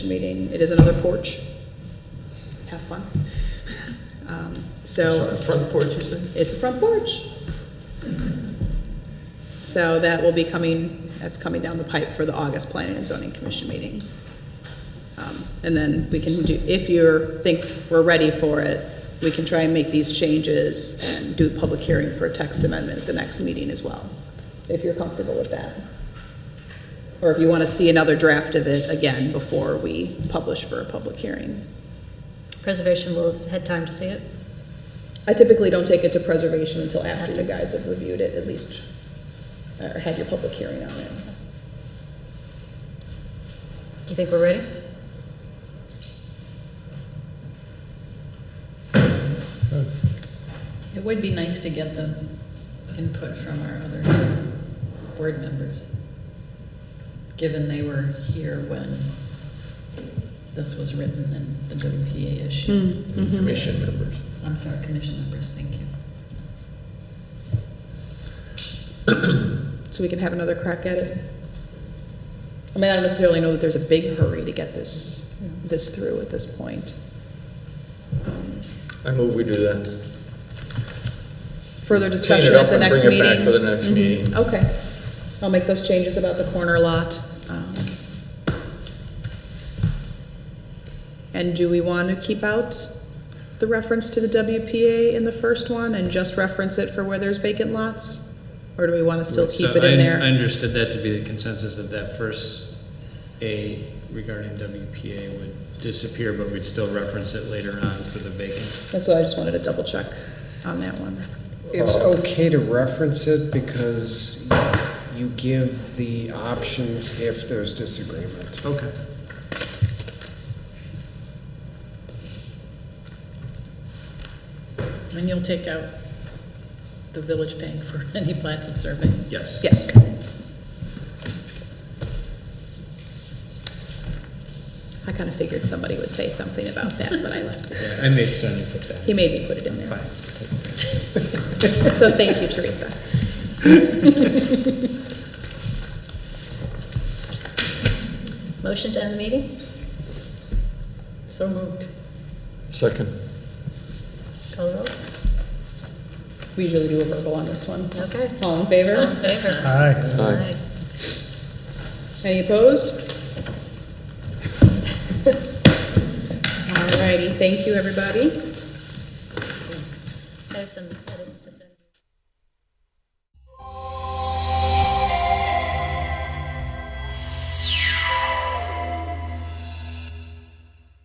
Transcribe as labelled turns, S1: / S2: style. S1: meeting. It is another porch. Have fun. Um, So
S2: Sorry, front porch, you said?
S1: it's a front porch. So that will be coming, that's coming down the pipe for the August Planning and Zoning Commission meeting. Um, And then we can do, if you think we're ready for it, we can try and make these changes and do a public hearing for a text amendment at the next meeting as well, if you're comfortable with that. Or if you want to see another draft of it again before we publish for a public hearing.
S3: Preservation will have had time to see it.
S1: I typically don't take it to preservation until after you guys have reviewed it, at least, or had your public hearing on it.
S3: Do you think we're ready?
S4: It would be nice to get the input from our other two board members, given they were here when this was written and the WPA issue.
S1: Mm-hmm.
S2: And Commission members.
S4: I'm sorry, commission members, thank you.
S1: So we can have another crack at it. I mean, I don't necessarily know that there's a big hurry to get this, this through at this point.
S2: I move we do that.
S1: Further
S2: Clean
S1: discussion
S2: it up
S1: at the
S2: and
S1: next
S2: bring it
S1: meeting?
S2: back for the next
S1: Mhm,
S2: meeting.
S1: Okay. I'll make those changes about the corner lot. um, And do we want to keep out the reference to the WPA in the first one and just reference it for where there's vacant lots? Or do we want to still
S5: Right,
S1: keep
S5: so
S1: it in
S5: I-
S1: there?
S5: I understood that to be the consensus of that first A regarding WPA would disappear, but we'd still reference it later on for the vacant.
S1: That's why I just wanted to double check on that one.
S6: It's okay to reference it because you give the options if there's disagreement.
S5: Okay.
S4: And you'll take out the village paying for any plats of survey.
S5: Yes.
S1: Yes. I kind of figured somebody would say something about that, but I left it.
S5: Yeah, I made Sonny put that.
S1: He made me put it in there.
S5: Fine.
S1: So thank you, Teresa.
S3: Motion to end the meeting?
S4: So moved.
S2: Second.
S3: Call the roll.
S1: We usually do a verbal on this one.
S3: Okay.
S1: All in
S3: All in
S1: favor?
S3: favor?
S2: Aye.
S1: Any opposed? All righty, thank you, everybody.
S3: I have some